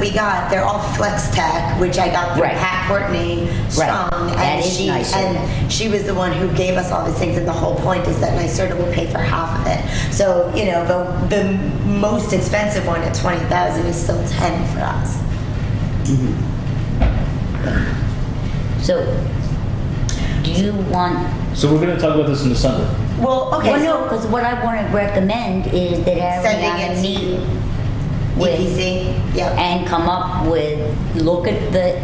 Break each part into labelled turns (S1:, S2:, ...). S1: we got, they're all Flex Tech, which I got through
S2: Right.
S1: Pat Courtney Strong. and
S2: That is
S1: she-
S2: nicer.
S1: And she was the one who gave us all these things, and the whole point is that NYSERDA will pay for half of it. So, you know, the, the most expensive one at twenty thousand is still ten for us.
S2: So, do you want,
S3: So we're gonna talk about this in December.
S1: Well, okay,
S2: well, no,
S1: so
S2: because what I want to recommend is that
S1: Sending it to
S2: Ariana meet
S1: E
S2: with,
S1: EPC, yeah.
S2: and come up with, look at the,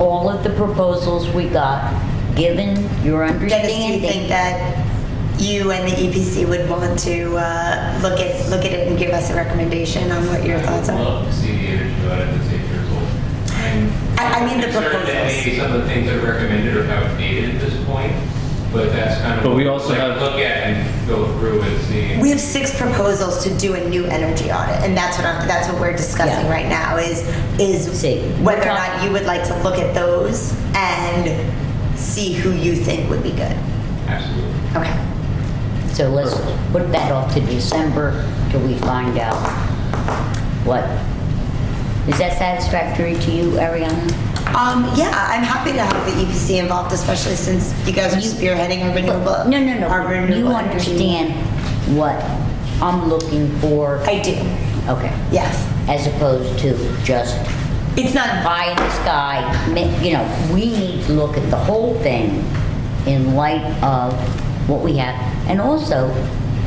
S2: all of the proposals we got, given your
S1: Dennis, do you think
S2: understanding.
S1: that you and the EPC would want to, uh, look at, look at it and give us a recommendation on what your thoughts
S4: I would
S1: are?
S4: love to see the energy audit that's eight years old.
S1: I- I mean the
S4: I'm certain that
S1: proposals.
S4: Maybe some of the things are recommended are outdated at this point, but that's kind of.
S3: But we
S4: what
S3: also
S4: like,
S3: have-
S4: Look at and go through and see.
S1: We have six proposals to do a new energy audit, and that's what I'm, that's what we're discussing
S2: Yeah.
S1: right now is, is
S2: See, we're
S1: whether or
S2: talk-
S1: not you would like to look at those and see who you think would be good.
S4: Absolutely.
S1: Okay.
S2: So let's put that off to December till we find out what, is that satisfactory to you, Ariana?
S1: Um, yeah, I'm happy to have the EPC involved, especially since you guys are
S2: You-
S1: spearheading our renewable.
S2: No, no,
S1: our
S2: no, you
S1: renewable energy.
S2: understand what I'm looking for,
S1: I do,
S2: okay?
S1: yes.
S2: as opposed to just
S1: It's not,
S2: pie in the sky. ma- You know, we need to look at the whole thing in light of what we have, and also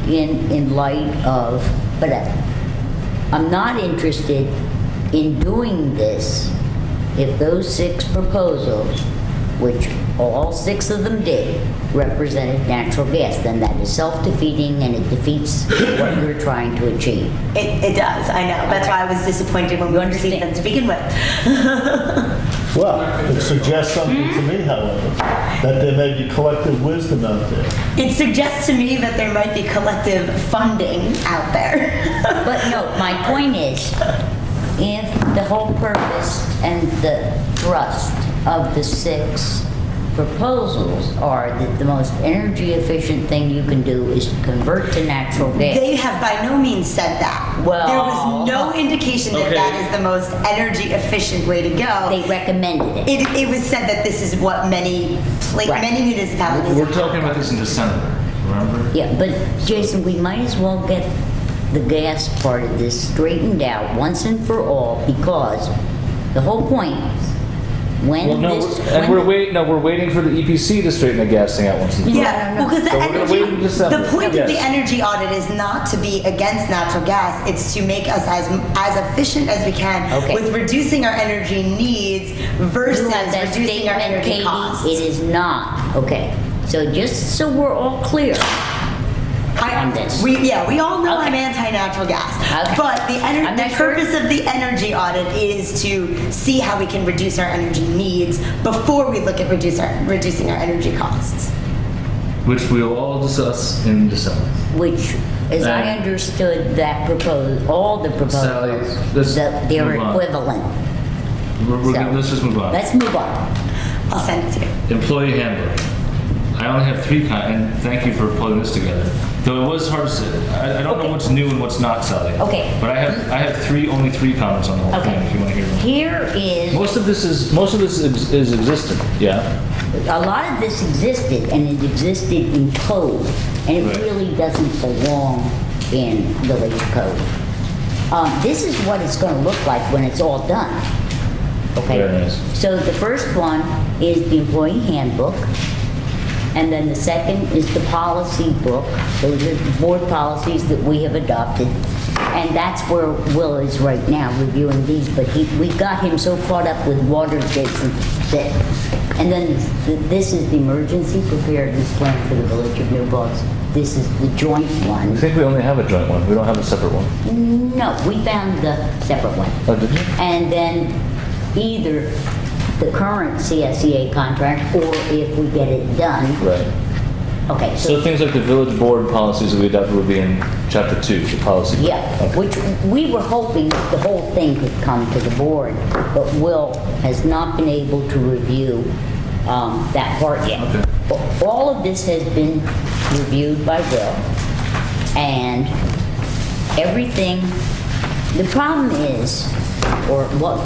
S2: in, in light of, but I- I'm not interested in doing this if those six proposals, which all six of them did, represented natural gas, then that is self-defeating and it defeats what we're trying to achieve.
S1: it, it does, I know, that's why I was disappointed when we
S2: You
S1: received
S2: understand.
S1: them to begin with.
S5: Well, it suggests something to me, however, that there may be collective wisdom out there.
S1: It suggests to me that there might be collective funding out there.
S2: But no, my point is, if the whole purpose and the thrust of the six proposals are that the most energy efficient thing you can do is to convert to natural gas.
S1: They have by no means said that.
S2: Well-
S1: There was no indication that
S3: Okay.
S1: that is the most energy efficient way to go.
S2: They recommended it.
S1: It, it was said that this is what many, pla
S2: Right.
S1: many municipalities.
S3: We're talking about this in December, remember?
S2: Yeah, but Jason, we might as well get the gas part of this straightened out once and for all because the whole point, when
S3: Well, no,
S2: this.
S3: we're- and
S2: when
S3: we're
S2: the-
S3: waiting, no, we're waiting for the EPC to straighten the gas thing out once and for all.
S1: Yeah,
S2: No, no, no.
S1: because the
S3: So we're gonna wait
S1: energy,
S3: until December.
S1: the point of the
S3: Yes.
S1: energy audit is not to be against natural gas, it's to make us as, as efficient as we can
S2: Okay.
S1: with reducing our energy needs versus
S2: You have that
S1: reducing our
S2: statement,
S1: energy
S2: Katie. It
S1: costs.
S2: is not, okay. So just so we're all clear, on
S1: I,
S2: this.
S1: we, yeah, we all know I'm
S2: Okay.
S1: anti-natural gas,
S2: Okay.
S1: but the
S2: I'm
S1: energy,
S2: not
S1: the
S2: sure.
S1: purpose of the energy audit is to see how we can reduce our energy needs before we look at reduce our, reducing our energy costs.
S3: Which we'll all discuss in December.
S2: which, as I
S3: Uh,
S2: understood that propos all the
S3: Sally,
S2: proposals,
S3: let's
S2: that they're
S3: move on.
S2: equivalent.
S3: We're, we're,
S2: So-
S3: gonna- let's just move on.
S2: Let's move on.
S1: I'll send it to you.
S3: Employee handbook. I only have three, con- and thank you for pulling this together. Though it was hard to, say- I, I don't know
S2: Okay.
S3: what's new and what's not, Sally.
S2: Okay.
S3: But I have, I have three, only three comments on the whole
S2: Okay.
S3: thing, if you wanna hear them.
S2: Here is,
S3: Most of this is, most of this is is existent, yeah?
S2: a lot of this existed, and it existed in code, and it
S3: Right.
S2: really doesn't belong in village code. Um, This is what it's gonna look like when it's all done, okay?
S3: Very nice.
S2: So the first one is the employee handbook, and then the second is the policy book. Those are the board policies that we have adopted, and that's where Will is right now, reviewing these, but he, we got him so caught up with water Jason, that, and then th- this is the emergency preparedness plan for the village of New Paltz. This is the joint
S3: I
S2: one.
S3: think we only have a joint one, we don't have a separate one.
S2: No, we found the separate one.
S3: Oh, did you?
S2: And then either the current CSEA contract, or if we get it done,
S3: Right.
S2: okay, so,
S3: So things like the village board policies that we adopted would be in chapter two, the policy. book.
S2: yeah,
S3: Okay.
S2: which we were hoping the whole thing could come to the board, but Will has not been able to review um, that part yet.
S3: Okay.
S2: A- All of this has been reviewed by Will, and everything, the problem is, or what